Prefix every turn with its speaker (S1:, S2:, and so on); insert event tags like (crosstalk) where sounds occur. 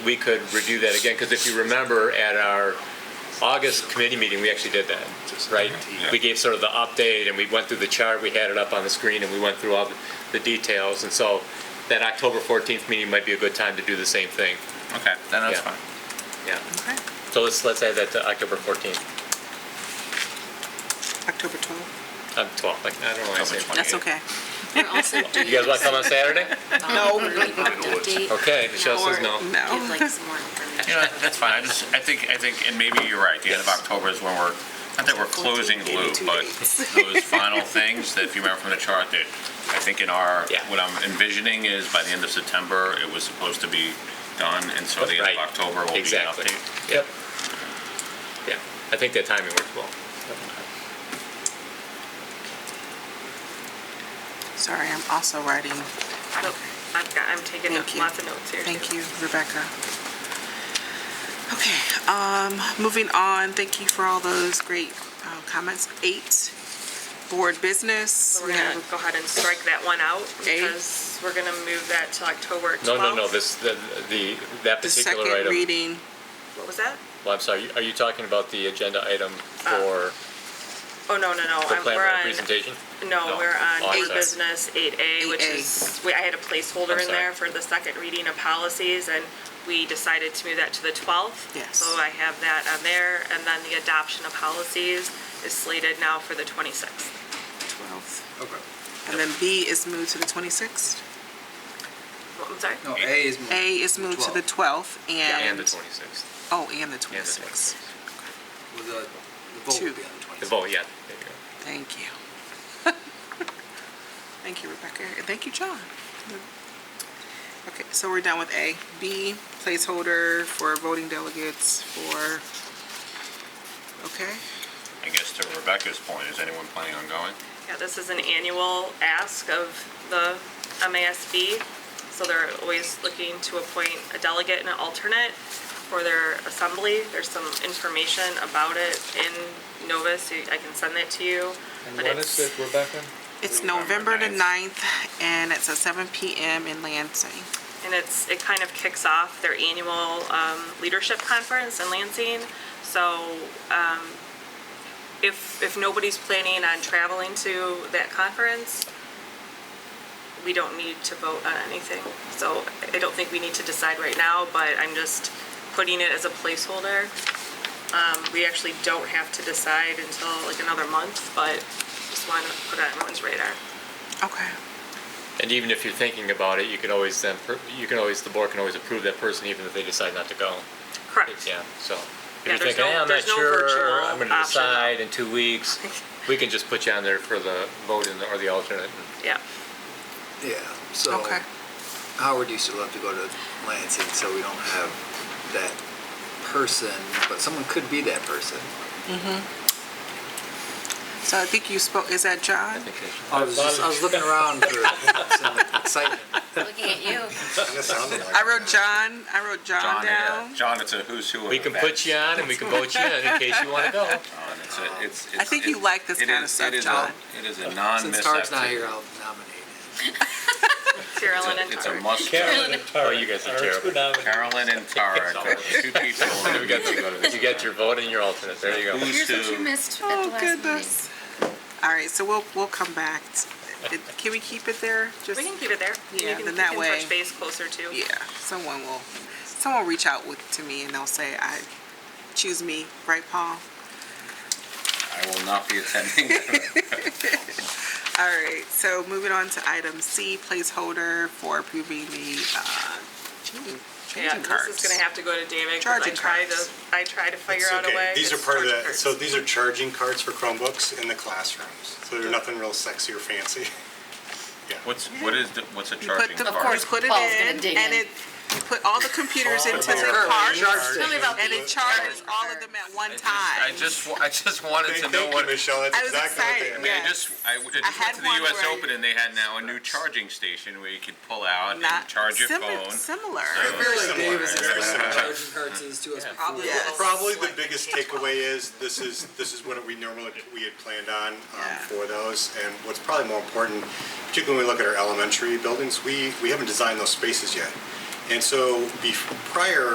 S1: we could review that again, because if you remember at our August committee meeting, we actually did that, right? We gave sort of the update, and we went through the chart, we had it up on the screen, and we went through all the- the details, and so that October 14th meeting might be a good time to do the same thing,
S2: Okay, then that's
S1: Yeah.
S2: fine.
S1: yeah.
S3: Okay.
S1: So let's, let's add that to October 14th,
S3: October 12th.
S1: um, 12th, like, I don't know why I said.
S2: October
S3: That's
S1: 28th.
S3: okay.
S4: We're
S1: (laughs)
S4: also doing.
S1: You guys want to come on
S3: (laughs)
S1: Saturday?
S3: No.
S1: Okay, Michelle says
S3: Or-
S1: no.
S3: No.
S4: Give like some more information.
S2: You know, that's fine. I just, I think, I think, and maybe you're right. The end of
S1: Yes.
S2: October is when we're, not that we're closing the loop,
S3: Two
S2: but
S3: dates.
S2: those final things that if you remember from the chart that I think in our,
S1: Yeah.
S2: what I'm envisioning is by the end of September, it was supposed to be done. And so the end
S1: Right.
S2: of October will be an
S1: Exactly.
S2: update.
S1: Yep. Yeah, I think that timing works well.
S3: Sorry, I'm also writing.
S5: Nope, Oh, I've got, I'm taking
S3: Thank you.
S5: lots of notes here.
S3: Thank
S5: too.
S3: you, Rebecca. Okay, um, moving on, thank you for all those great uh, comments. Eight, board business.
S5: So
S3: We
S5: we're gonna
S3: have-
S5: go ahead and strike that one out
S3: Eight.
S5: because we're gonna move that to October 12th.
S1: No, no, no, this, the, the, that
S3: The
S1: particular
S3: second
S1: item.
S3: reading,
S5: What was that?
S1: Well, I'm sorry, are you talking about the agenda item for
S5: Oh, no, no,
S1: the
S5: no, I'm-
S1: plan
S5: we're
S1: rep
S5: on,
S1: presentation?
S5: no,
S1: No.
S5: we're
S1: Oh,
S5: on
S1: I'm
S5: new
S1: sorry.
S5: business 8A, which
S3: 8A.
S5: is, we- I had a placeholder
S1: I'm
S5: in
S1: sorry.
S5: there for the second reading of policies and we decided to move that to the 12th.
S3: Yes.
S5: So I have that on there and then the adoption of policies is slated now for the 26th.
S3: 12th. And then B is moved to the 26th.
S5: Oh, I'm sorry?
S6: No, A is moved.
S3: A is moved to the 12th
S1: And the
S3: and,
S1: twenty-sixth,
S3: oh, and the
S1: and the
S3: 26th.
S1: twenty-sixth.
S6: Well, The the vote
S3: Two.
S6: will be on the 26th.
S1: The vote, yeah, there you go.
S3: Thank you. (laughs) Thank you, Rebecca, and thank you, John. Okay, so we're done with A. B, placeholder for voting delegates for, okay?
S2: I guess to Rebecca's point, is anyone planning on going?
S5: Yeah, this is an annual ask of the MASB, so they're always looking to appoint a delegate and an alternate for their assembly. There's some information about it in Novus, so I can send that to you. But it's
S1: Rebecca?
S3: It's
S2: November
S3: November the 9th, and it's at seven PM in Lansing.
S5: And it's, it kind of kicks off their annual um, leadership conference in Lansing. So um, if, if nobody's planning on traveling to that conference, we don't need to vote on anything. So I don't think we need to decide right now, but I'm just putting it as a placeholder. Um, We actually don't have to decide until like another month, but just want to put it on everyone's radar.
S3: Okay,
S1: And even if you're thinking about it, you can always then, per- you can always, the board can always approve that person even if they decide not to go.
S5: Correct.
S1: Yeah, so. If
S5: Yeah,
S1: you're
S5: there's
S1: thinking, "Eh,
S5: no-
S1: I'm not
S5: there's no
S1: sure,
S5: virtual
S1: I'm gonna
S5: option.
S1: decide in two
S5: (laughs)
S1: weeks, we can just put you on there for the vote and, or the alternate.
S5: Yeah.
S6: Yeah, so
S3: okay.
S6: Howard used to love to go to Lansing, so we don't have that person, but someone could be that person.
S3: So I think you spoke, is that
S1: I
S3: John?
S1: think they should-
S6: I was just, I was looking around for some
S1: (laughs)
S6: excitement.
S4: Looking at you.
S3: I wrote John, I wrote John
S2: John, uh,
S3: down.
S2: John, it's a who's who. of
S1: We can
S2: events.
S1: put you on and we can vote you in in case you wanna go.
S2: John, it's a- it's-
S3: I think you
S2: it's-
S3: like this
S2: it
S3: kinda
S2: is-
S3: stuff,
S2: it is a-
S3: John.
S2: It is a non-miss.
S6: Since Tark's not
S2: activity.
S6: here, I'll nominate
S5: Carolyn and
S2: It's a
S5: Tarek.
S2: must.
S1: Oh, you guys are terrible.
S2: Carolyn and Tara, the two people.
S1: You got your- you got your vote and your alternate, there you go.
S2: Who's
S4: Here's what you
S2: who?
S4: missed at the
S3: Oh,
S4: last meeting.
S3: goodness. All right, so we'll, we'll come back. It- Can we keep it there? Just
S5: We can keep it there. You
S3: Yeah,
S5: can-
S3: then
S5: you
S3: that
S5: can
S3: way-
S5: Touch base closer to.
S3: Yeah, someone will, someone will reach out with, to me and they'll say, I, choose me, right, Paul?
S2: I will not be attending. (laughs)
S3: All right, so moving on to item C, placeholder for approving the, uh, changing,
S5: Yeah,
S3: changing cards.
S5: this is gonna have to go to David, 'cause I
S3: Charging
S5: tried to,
S3: cards.
S5: I tried to figure
S7: It's
S5: out a
S7: okay.
S5: way.
S7: These are
S5: It's
S7: part of
S5: charging
S7: that,
S5: cards.
S7: so these are charging cards for Chromebooks in the classrooms. So they're nothing real sexy
S5: (laughs)
S7: or fancy.
S2: What's, what is, the- what's a
S3: You put
S2: charging
S3: the,
S2: card?
S4: Of course,
S3: you put it
S4: Paul's gonna
S3: in
S4: dig
S3: and
S4: in.
S3: it, you put all the computers into
S7: All
S3: the
S7: the
S3: card
S4: Tell me about
S3: and
S4: the
S3: it charges all of them at one
S2: I just-
S3: time.
S2: I just, wa- I just wanted
S7: Thank
S2: to
S7: thank
S2: know
S7: you,
S2: what, I
S7: Michelle,
S3: I
S7: that's
S3: was
S7: exactly what they
S3: excited,
S7: are.
S2: mean, I
S3: yeah.
S2: just, I w- I just
S3: had
S2: went to the
S3: one
S2: US
S3: where I-
S2: Open and they had now a new charging station where you could pull out
S3: Not
S2: and charge your
S3: simi-
S2: phone.
S3: Similar.
S6: it. I feel like
S7: similar,
S6: Dave has
S7: very
S6: explained
S7: similar.
S6: charging cards to us before.
S3: Probably
S5: Yeah.
S3: will.
S7: Probably the biggest takeaway is, this is, this is what we normally, we had planned on um,
S3: Yeah.
S7: for those. And what's probably more important, particularly when we look at our elementary buildings, we, we haven't designed those spaces yet. And so, bef prior